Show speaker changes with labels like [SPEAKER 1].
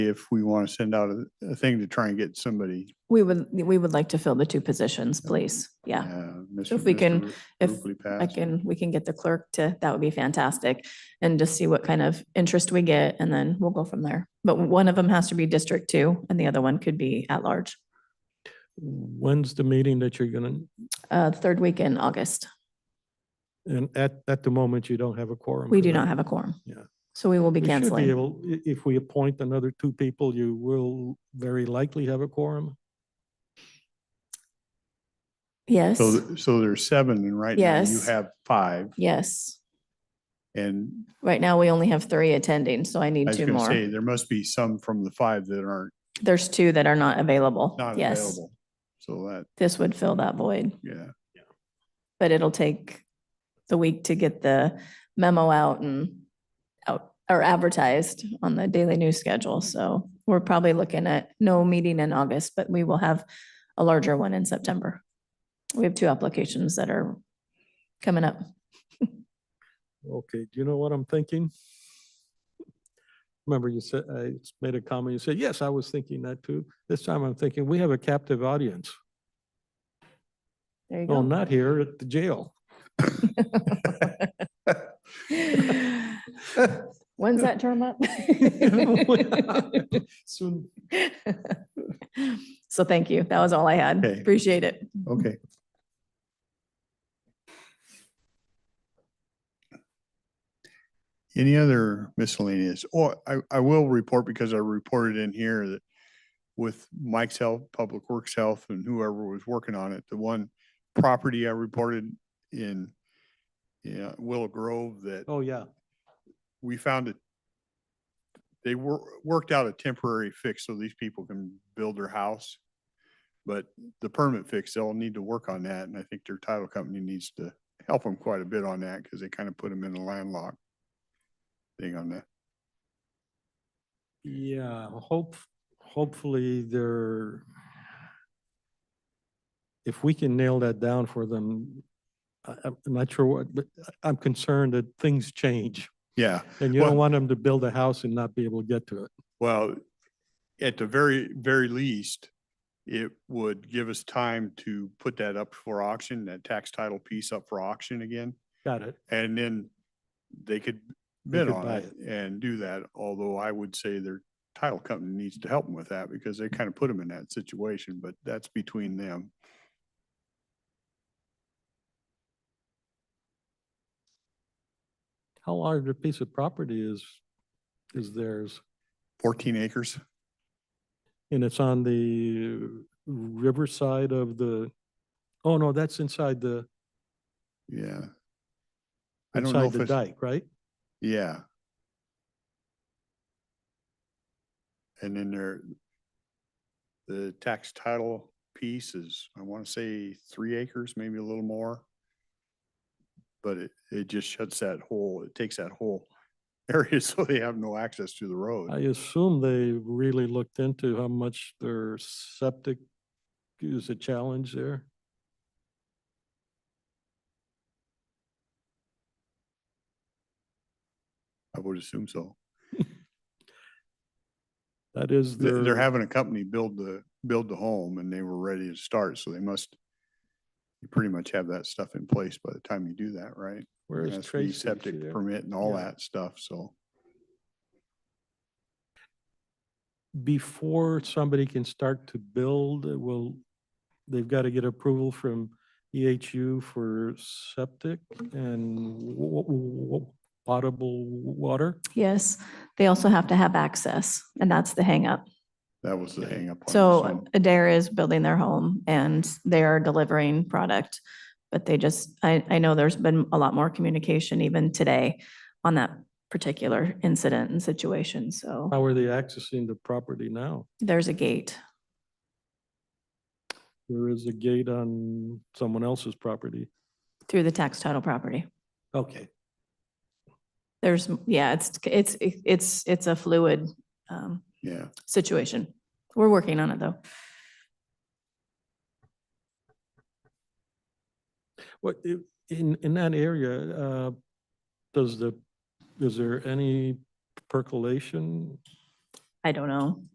[SPEAKER 1] if we want to send out a, a thing to try and get somebody.
[SPEAKER 2] We would, we would like to fill the two positions, please. Yeah.
[SPEAKER 1] uh,
[SPEAKER 2] So if
[SPEAKER 1] Mr.
[SPEAKER 2] we can-
[SPEAKER 1] Mr.
[SPEAKER 2] if
[SPEAKER 1] Rupley
[SPEAKER 2] I
[SPEAKER 1] passed.
[SPEAKER 2] can, we can get the clerk to, that would be fantastic. And just see what kind of interest we get and then we'll go from there. But one of them has to be District Two and the other one could be at large,
[SPEAKER 3] When's the meeting that you're gonna,
[SPEAKER 2] uh, the third week in August.
[SPEAKER 3] and at, at the moment, you don't have a quorum?
[SPEAKER 2] We
[SPEAKER 3] for
[SPEAKER 2] do
[SPEAKER 3] that.
[SPEAKER 2] not have a quorum.
[SPEAKER 3] Yeah.
[SPEAKER 2] So we will be
[SPEAKER 3] We should be
[SPEAKER 2] canceling.
[SPEAKER 3] able, i- if we appoint another two people, you will very likely have a quorum.
[SPEAKER 2] Yes,
[SPEAKER 1] So, th- so there's seven and right now you
[SPEAKER 2] Yes.
[SPEAKER 1] have five
[SPEAKER 2] yes.
[SPEAKER 1] and
[SPEAKER 2] Right now, we only have three attending, so I
[SPEAKER 1] I
[SPEAKER 2] need
[SPEAKER 1] was
[SPEAKER 2] two
[SPEAKER 1] going to say,
[SPEAKER 2] more.
[SPEAKER 1] there must be some from the five that aren't,
[SPEAKER 2] There's two that are not available.
[SPEAKER 1] not
[SPEAKER 2] Yes,
[SPEAKER 1] available. So that,
[SPEAKER 2] this would fill that void.
[SPEAKER 1] yeah,
[SPEAKER 2] but it'll take the week to get the memo out and out or advertised on the daily news schedule. So we're probably looking at no meeting in August, but we will have a larger one in September. We have two applications that are coming up.
[SPEAKER 3] Okay, do you know what I'm thinking? Remember you said, I made a comment, you said, yes, I was thinking that too. This time I'm thinking, we have a captive audience.
[SPEAKER 2] There you
[SPEAKER 3] Well,
[SPEAKER 2] go.
[SPEAKER 3] not here at the jail.
[SPEAKER 2] When's that term up?
[SPEAKER 3] Soon.
[SPEAKER 2] So thank you. That was all I had.
[SPEAKER 1] Okay.
[SPEAKER 2] Appreciate it.
[SPEAKER 1] okay. Any other miscellaneous? Or I, I will report because I reported in here that with Mike's health, Public Works Health and whoever was working on it, the one property I reported in yeah, Willow Grove that
[SPEAKER 3] Oh, yeah.
[SPEAKER 1] we found it. They were, worked out a temporary fix so these people can build their house. But the permit fix, they'll need to work on that, and I think their title company needs to help them quite a bit on that, because they kind of put them in a landlocked thing on that.
[SPEAKER 3] Yeah, hope, hopefully they're. If we can nail that down for them, I, I'm not sure what, but I- I'm concerned that things change.
[SPEAKER 1] Yeah,
[SPEAKER 3] And you don't
[SPEAKER 1] Well-
[SPEAKER 3] want them to build a house and not be able to get to it.
[SPEAKER 1] well, at the very, very least, it would give us time to put that up for auction, that tax title piece up for auction again.
[SPEAKER 3] Got it.
[SPEAKER 1] And then they could bid
[SPEAKER 3] could
[SPEAKER 1] on
[SPEAKER 3] buy
[SPEAKER 1] it and do that, although I would say their title company needs to help them with that because they kind of put them in that situation, but that's between them.
[SPEAKER 3] How large a piece of property is, is theirs?
[SPEAKER 1] Fourteen acres,
[SPEAKER 3] And it's on the riverside of the, oh no, that's inside the,
[SPEAKER 1] yeah. I don't know
[SPEAKER 3] inside
[SPEAKER 1] if
[SPEAKER 3] the
[SPEAKER 1] it's,
[SPEAKER 3] dike, right?
[SPEAKER 1] yeah. And then there, the tax title piece is, I want to say three acres, maybe a little more. But it, it just shuts that whole, it takes that whole area so they have no access to the
[SPEAKER 3] I
[SPEAKER 1] road.
[SPEAKER 3] assume they really looked into how much their septic is a challenge there.
[SPEAKER 1] I would assume so.
[SPEAKER 3] That is
[SPEAKER 1] They're,
[SPEAKER 3] their.
[SPEAKER 1] they're having a company build the, build the home and they were ready to start, so they must you pretty much have that stuff in place by the time you do that, right?
[SPEAKER 3] Where is
[SPEAKER 1] Has to be
[SPEAKER 3] Tracy? Is she
[SPEAKER 1] Septic
[SPEAKER 3] there?
[SPEAKER 1] permit and all
[SPEAKER 3] Yeah.
[SPEAKER 1] that stuff, so.
[SPEAKER 3] Before somebody can start to build, uh, will, they've got to get approval from EHU for septic and w- w- w- potable water?
[SPEAKER 2] Yes, they also have to have access and that's the hangup.
[SPEAKER 1] That was the
[SPEAKER 3] Okay.
[SPEAKER 1] hang up. on it,
[SPEAKER 2] So Adair is building their home and they are delivering product. But they just, I, I know there's been a lot more communication even today on that particular incident and situation. So
[SPEAKER 3] How are they accessing the property now?
[SPEAKER 2] there's a gate.
[SPEAKER 3] There is a gate on someone else's property.
[SPEAKER 2] through the tax title property.
[SPEAKER 3] Okay.
[SPEAKER 2] There's, yeah, it's, it's, it's, it's a fluid um,
[SPEAKER 1] Yeah,
[SPEAKER 2] situation. We're working on it though.
[SPEAKER 3] What, i- in, in that area, uh, does the, is there any percolation?
[SPEAKER 2] I don't know.